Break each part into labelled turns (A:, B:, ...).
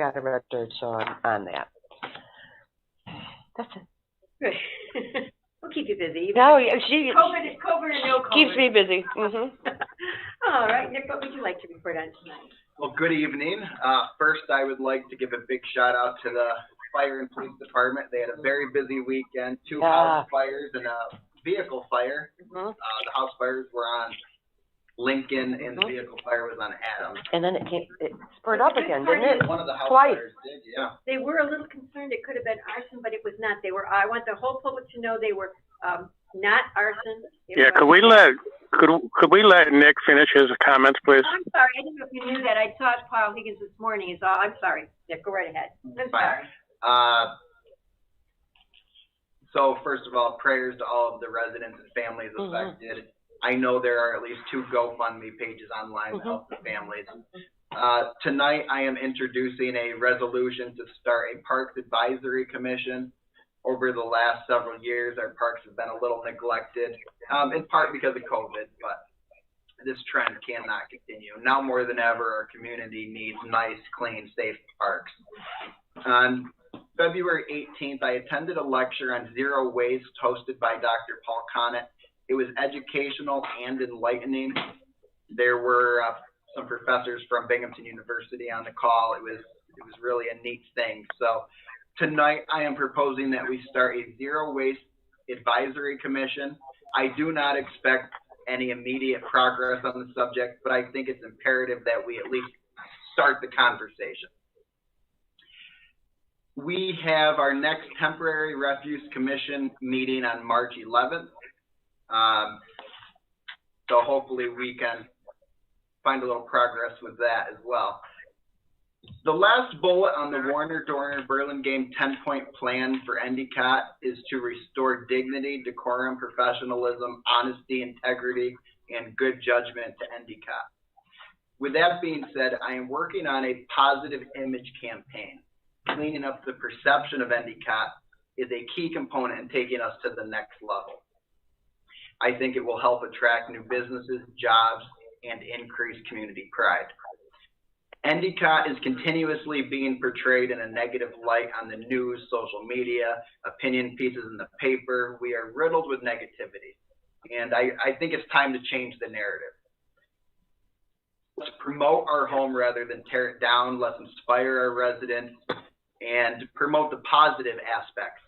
A: got a red dirt show on, on that. That's it.
B: Good. We'll keep you busy.
A: No, yeah, she
B: COVID, COVID or no COVID.
A: keeps me busy. hmm
B: All right, Nick, what would you like to report on tonight?
C: Well, good evening. Uh, first, I would like to give a big shout out to the fire and police department. They had a very busy weekend, two
A: Ah.
C: house fires and a vehicle fire.
A: hmm
C: Uh, the house fires were on Lincoln and the
A: Mhm.
C: vehicle fire was on Adams.
A: And then it came, it spurred up again, didn't it?
C: One of the house
A: Twice.
C: fires did, yeah.
B: They were a little concerned it could have been arson, but it was not. They were, I want the whole public to know they were, um, not arson. It
D: Yeah,
B: was-
D: could we let, could, could we let Nick finish his comments, please?
B: I'm sorry, I didn't know if you knew that. I saw Paul Higgins this morning, is all. I'm sorry. Nick, go right ahead. I'm
C: Fine.
B: sorry.
C: Uh, so first of all, prayers to all of the residents and families
A: Mhm.
C: affected. I know there are at least two GoFundMe pages online
A: Mhm.
C: to help the families. Uh, tonight, I am introducing a resolution to start a Parks Advisory Commission. Over the last several years, our parks have been a little neglected, um, in part because of COVID, but this trend cannot continue. Now more than ever, our community needs nice, clean, safe parks. Um, On February 18th, I attended a lecture on zero waste hosted by Dr. Paul Connett. It was educational and enlightening. There were uh, some professors from Binghamton University on the call. It was it was really a neat thing. So tonight, I am proposing that we start a zero waste advisory commission. I do not expect any immediate progress on the subject, but I think it's imperative that we at least start the conversation. We have our next temporary refuse commission meeting on March eleventh. Um, so hopefully we can find a little progress with that as well. The last bullet on the Warner Dorner Burlingame ten point plan for Endicott is to restore dignity, decorum, professionalism, honesty, integrity, and good judgment to Endicott. With that being said, I am working on a positive image campaign cleaning up the perception of Endicott is a key component in taking us to the next level. I think it will help attract new businesses, jobs, and increase community pride. Endicott is continuously being portrayed in a negative light on the news, social media, opinion pieces in the paper. We are riddled with negativity. And I, I think it's time to change the narrative let's promote our home rather than tear it down. Let's inspire our residents and promote the positive aspects.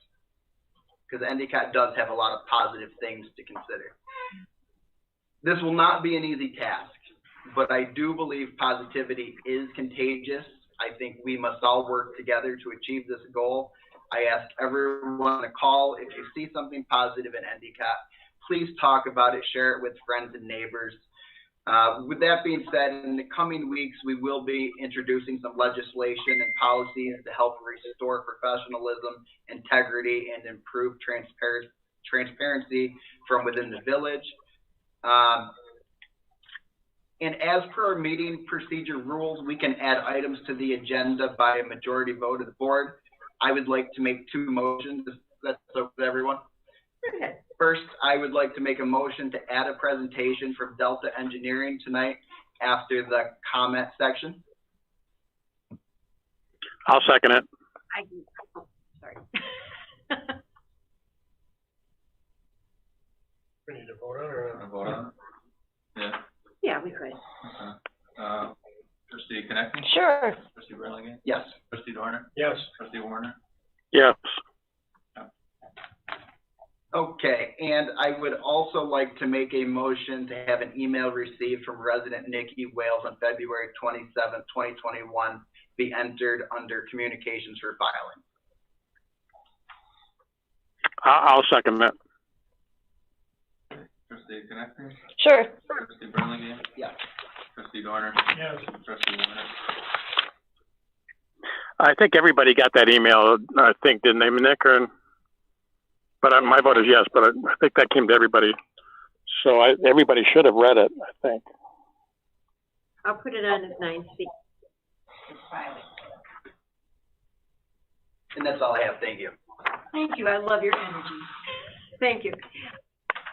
C: Because Endicott does have a lot of positive things to consider. This will not be an easy task, but I do believe positivity is contagious. I think we must all work together to achieve this goal. I ask everyone to call if you see something positive in Endicott. Please talk about it, share it with friends and neighbors. Uh, With that being said, in the coming weeks, we will be introducing some legislation and policies to help restore professionalism, integrity, and improve transpar- transparency from within the village. Um, And as per our meeting procedure rules, we can add items to the agenda by a majority vote of the board. I would like to make two motions, if that's okay with everyone.
B: Go ahead.
C: First, I would like to make a motion to add a presentation from Delta Engineering tonight after the comment section.
D: I'll second it.
B: I, can- oh, sorry.
E: We need to vote on it or?
F: Wanna vote on
B: Yeah, we could.
F: it? Uh, trustee Connectney,
A: Sure.
F: trustee Burlingame,
C: Yes.
F: trustee Dorner,
E: Yes.
F: trustee Warner,
D: Yes.
C: Okay, and I would also like to make a motion to have an email received from resident Nikki Wales on February twenty-seventh, twenty twenty-one be entered under communications for filing.
D: I, I'll second that.
F: trustee Connectney,
A: Sure.
F: trustee Burlingame.
C: Yeah.
F: Trustee Dorner,
E: Yes.
F: trustee Warner,
D: I think everybody got that email, I think, didn't they, Nick? Or, but I, my vote is yes, but I, I think that came to everybody. So I, everybody should have read it, I think.
B: I'll put it on as nine C.
C: And that's all I have, thank you.
B: Thank you, I love your energy. Thank you.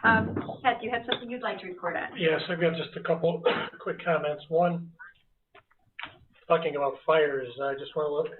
B: Um, Pat, do you have something you'd like to report on?
E: Yes, I've got just a couple quick comments. One, talking about fires, I just want to let